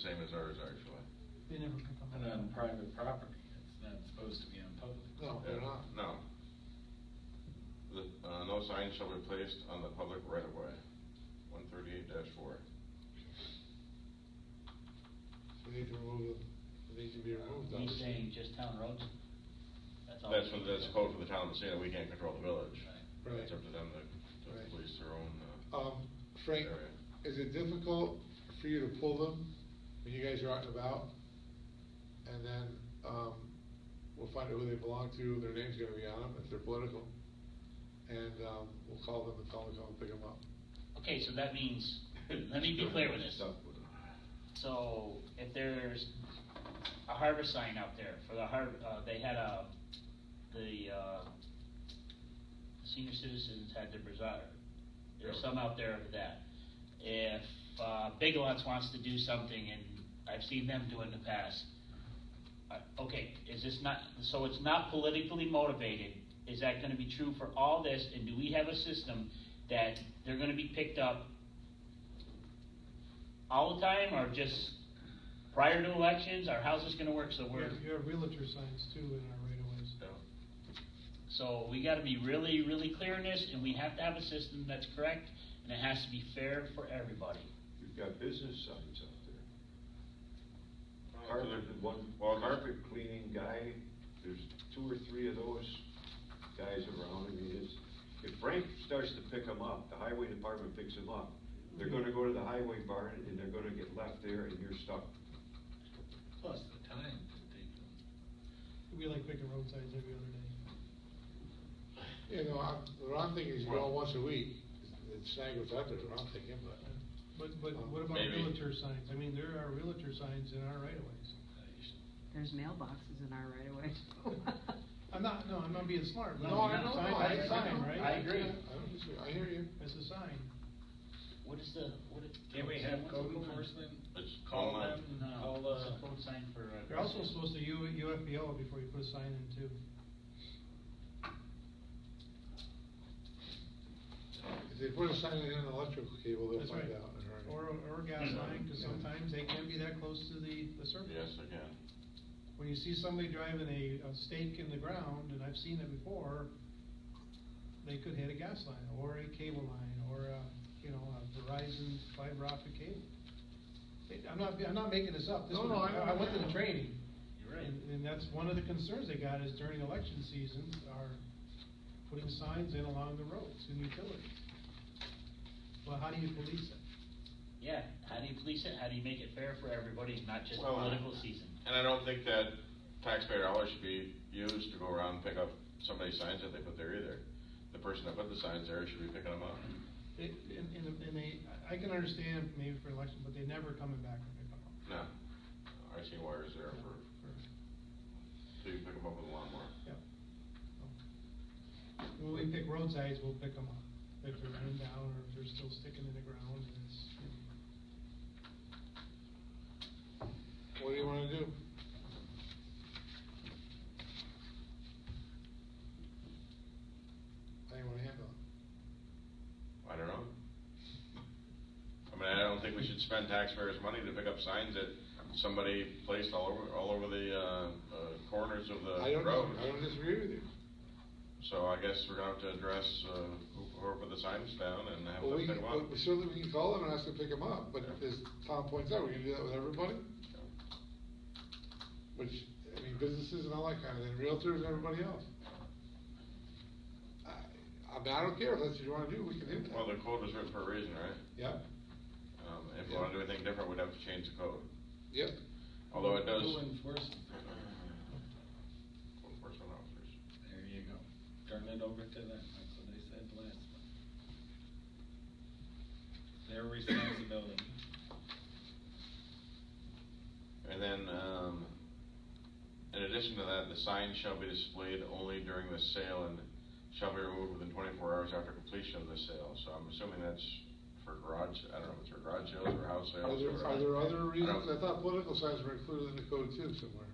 same as ours, actually. They never pick up. And on private property, it's not supposed to be on public. No, Oh, they're not. No. The, uh, no sign shall be placed on the public right of way, one thirty-eight four. So we need to remove, it needs to be removed. He's obviously. saying just town roads? Oh. all That's we what, can that's do. code for the town of the that we can't control the village. Right. It's up to them to, to Right. police their own, uh. Um, Frank, area. is it difficult for you to pull them when you guys are out and about? And then, um, we'll find out who they belong to, their name's gonna be on them, if they're political. And, um, we'll call them and tell them to come and pick them up. Okay, so that means, let me be clear with this. Stuff So if there's a harvest sign out there for the har, uh, they had a, the, uh, senior citizens had their bazaar. There's some out there for that. If, uh, Big Lots wants to do something, and I've seen them do in the past, uh, okay, is this not, so it's not politically motivated, is that gonna be true for all this, and do we have a system that they're gonna be picked up all the time, or just prior to elections, or how's this gonna work, so we're, You have realtor signs too in our right of ways. Yeah. so we gotta be really, really clear in this, and we have to have a system that's correct, and it has to be fair for everybody. You've got business signs out there. Uh, Carpet, the- one, well, the- carpet cleaning guy, there's two or three of those guys around, I mean, it's, if Frank starts to pick them up, the highway department picks them up, they're gonna go to the highway barn and they're gonna get left there and you're stuck. Plus the time to take them. We like picking road signs every other day. You know, I'm, what I'm thinking is, Well- well, once a week, the snag was out there, what I'm thinking, but. But, but what about Maybe. realtor signs? I mean, there are realtor signs in our right of ways. There's mailboxes in our right away. I'm not, no, I'm not being smart. but No, I it's a don't sign, know, I- It's a sign, right? I agree. I don't disagree, I hear you. It's a sign. What is the, what is? Can we have what's the code code? enforcement? It's Call online. them, No, call, it's a uh, code sign for. uh, You're also supposed to U, UFPL before you put a sign in too. If they put a sign in an electrical cable, they'll That's find right. out. in a hurry. Or, or a gas line, cause Yeah. sometimes they can be that close to the, the surface. Yes, again. When you see somebody driving a, a stake in the ground, and I've seen it before, they could hit a gas line, or a cable line, or a, you know, a Verizon fiber optic cable. It- I'm not, I'm not making this up, this No, was, no, I- I went to the training. You're right. And, and that's one of the concerns they got is during election season are putting signs in along the roads and utilities. Well, how do you police it? Yeah, how do you police it, how do you make it fair for everybody, not just Well, I- political season? And I don't think that taxpayer dollars should be used to go around and pick up somebody's signs that they put there either. The person that put the signs there should be picking them up. It, and, and- and they, I I can understand maybe for election, but they never coming back and pick 'em up. No, I seen wires there for, so you can pick them up with a lawnmower. Yep. When we pick roadsides, we'll pick them up, if they're run down or if they're still sticking in the ground and it's, you know. What do you wanna do? How you wanna handle it? I don't know. I mean, I don't think we should spend taxpayers' money to pick up signs that somebody placed all over, all over the, uh, uh, corners of I the don't, road. dis- I don't disagree with you. So I guess we're gonna have to address, uh, who- whoever put the signs down and have Well, them we, pick can- them well, up. certainly we can call them and ask them to pick them up, but Yeah. as Tom points out, we can do that with everybody, which, I mean, businesses and all that kind of thing, realtors and everybody else. I, I mean, I don't care if that's what you wanna do, we can do that. Well, the code was written for a reason, right? Yep, Um, if we wanna do anything different, we'd have to change the code, yep. although it does. Who enforces it? Code enforcement officers. There you go. Turn it over to them, that's what I said last one. Their responsibility. And then, um, in addition to that, the sign shall be displayed only during the sale and shall be removed within twenty-four hours after completion of the sale, so I'm assuming that's for garage, I don't know if it's for garage sales or house sales. Are or- there, are there other I don't- reasons? I thought political signs were included in the code too somewhere.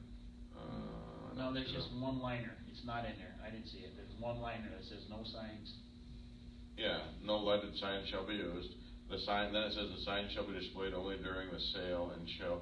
Uh, I No, don't there's know. just one liner, it's not in there, I didn't see it, there's one liner that says no signs. Yeah, no lighted sign shall be used, the sign, then it says the sign shall be displayed only during the sale and shall